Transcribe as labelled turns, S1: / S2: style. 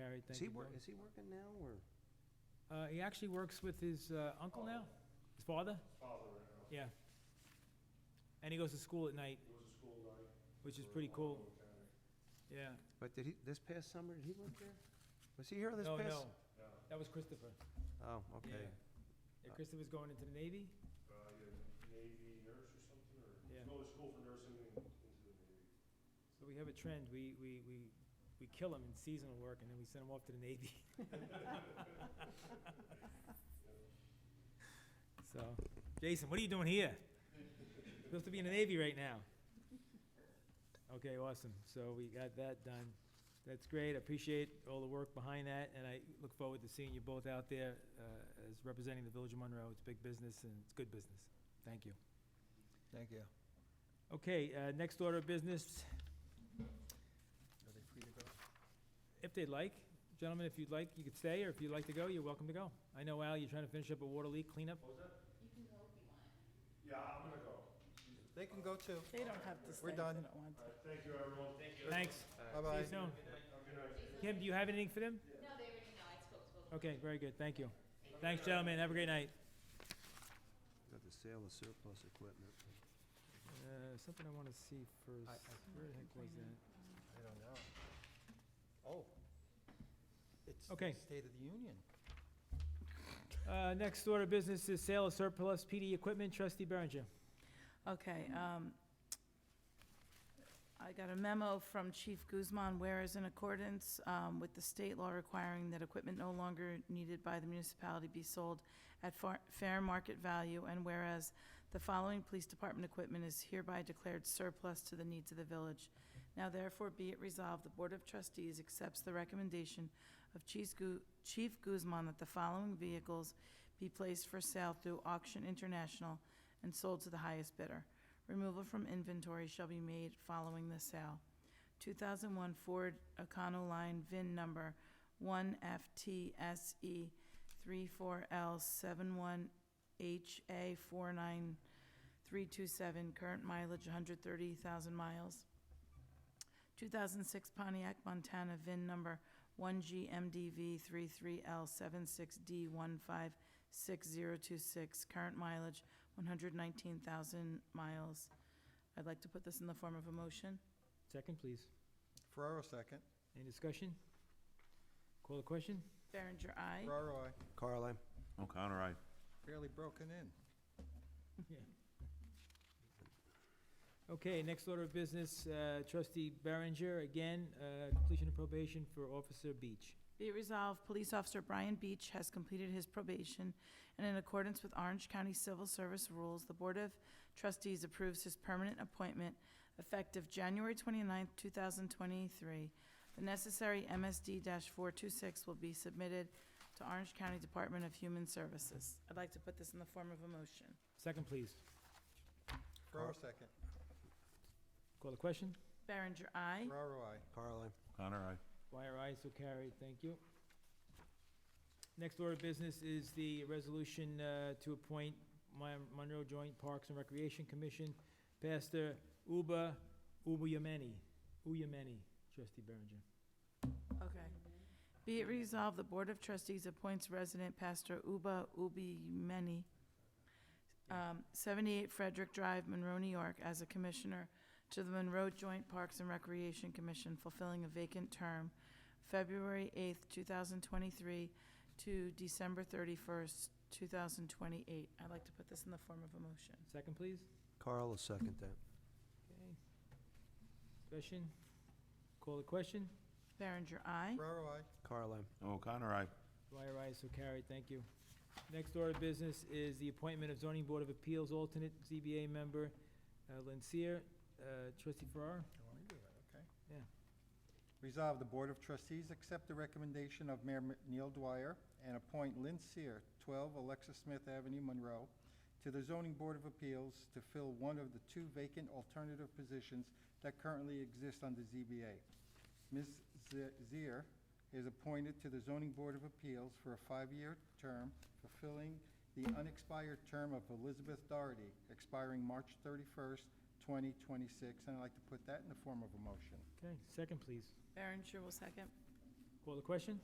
S1: right,
S2: Is
S1: thank
S2: he
S1: you,
S2: wor,
S1: Norm.
S2: is he working now, or?
S1: Uh, he actually works with his uh, uncle now, his father? Yeah. And he goes to school at night. Which is pretty cool. Yeah.
S2: But did he, this past summer, did he work there? Was he here this
S1: No,
S2: past?
S1: no. That was Christopher.
S2: Oh,
S1: Yeah.
S2: okay.
S1: Yeah,
S2: Uh,
S1: Christopher's going into the Navy? Yeah. So we have a trend. We, we, we, we kill them in seasonal work and then we send them off to the Navy. So, Jason, what are you doing here? Supposed to be in the Navy right now. Okay, awesome. So we got that done. That's great. I appreciate all the work behind that and I look forward to seeing you both out there, uh, as representing the Village of Monroe. It's big business and it's good business. Thank you.
S3: Thank you.
S1: Okay, uh, next order of business,
S3: Are they free to go?
S1: if they'd like, gentlemen, if you'd like, you could stay, or if you'd like to go, you're welcome to go. I know, Al, you're trying to finish up a water leak cleanup.
S3: They can go too.
S4: They don't have to stay
S3: We're
S4: if they don't
S3: done.
S4: want to.
S1: Thanks. See
S3: Bye-bye.
S1: you soon. Kim, do you have anything for them? Okay, very good, thank you. Thanks, gentlemen, have a great night.
S2: Got the sale of surplus equipment.
S1: Uh, something I wanna see
S3: I- I-
S1: first. Where the heck was that?
S3: I don't know. Oh. It's
S1: Okay.
S3: the State of the Union.
S1: Uh, next order of business is sale of surplus PD equipment, trustee Berenger.
S4: Okay, um, I got a memo from Chief Guzman, whereas in accordance, um, with the state law requiring that equipment no longer needed by the municipality be sold at far, fair market value, and whereas the following police department equipment is hereby declared surplus to the needs of the village. Now therefore be it resolved, the Board of Trustees accepts the recommendation of Chief Gu- Chief Guzman that the following vehicles be placed for sale through Auction International and sold to the highest bidder. Removal from inventory shall be made following the sale. 2001 Ford Econoline VIN number E 1FTSE34L71HA49327, current mileage 130,000 miles. 2006 Pontiac Montana VIN number 1GMDV33L76D156026, current mileage 119,000 miles. I'd like to put this in the form of a motion.
S1: Second, please.
S3: Ferraro second.
S1: Any discussion? Call the question?
S4: Berenger, aye.
S3: Ferraro, I
S2: Carl, I'm,
S5: O'Connor, aye.
S3: barely broken in.
S1: Okay, next order of business, uh, trustee Berenger, again, uh, completion of probation for Officer Beach.
S4: Be it resolved, Police Officer Brian Beach has completed his probation, and in accordance with Orange County Civil Service rules, the Board of Trustees approves his permanent appointment effective January 29, thousand twenty-three. The necessary MSD four-two-six will be submitted to Orange County Department of Human Services. I'd like to put this in the form of a motion.
S1: Second, please.
S3: Ferraro second.
S1: Call the question?
S4: Berenger, aye.
S3: Ferraro, I.
S2: Carl, I'm.
S5: O'Connor, aye.
S1: Wire ayes, so carried, thank you. Next order of business is the resolution uh, to appoint Mon- Monroe Joint Parks and Recreation Commission, Pastor Uba Ubuyameni, Uyameni, trustee Berenger.
S4: Okay. Be it resolved, the Board of Trustees appoints resident pastor Uba Ubi Meni, um, 78 Frederick Drive, Monroe, New York, as a commissioner to the Monroe Joint Parks and Recreation Commission, fulfilling a vacant term, February 8th, 2023 to December 31st, 2028. I'd like to put this in the form of a motion.
S1: Second, please.
S2: Carl will second that.
S1: Okay. Discussion? Call the question?
S4: Berenger, aye.
S3: Ferraro, I.
S2: Carl, I'm.
S5: O'Connor, aye.
S1: Dwyer, ayes, so carried, thank you. Next order of business is the appointment of zoning board of appeals alternate ZBA member, uh, Lincier, uh, trustee Farrar.
S3: You want me to do that, okay?
S1: Yeah.
S3: Resolve, the Board of Trustees accept the recommendation of Mayor M- Neil Dwyer and appoint Lynn Seer, 12 Alexa Smith Avenue, Monroe, to the Zoning Board of Appeals to fill one of the two vacant alternative positions that currently exist on the ZBA. Ms. Ze- Zier is appointed to the Zoning Board of Appeals for a five-year term, fulfilling the unexpired term of Elizabeth Doherty, expiring March 31st, 2026, and I'd like to put that in the form of a motion.
S1: Okay, second, please.
S4: Berenger will second.
S1: Call the question?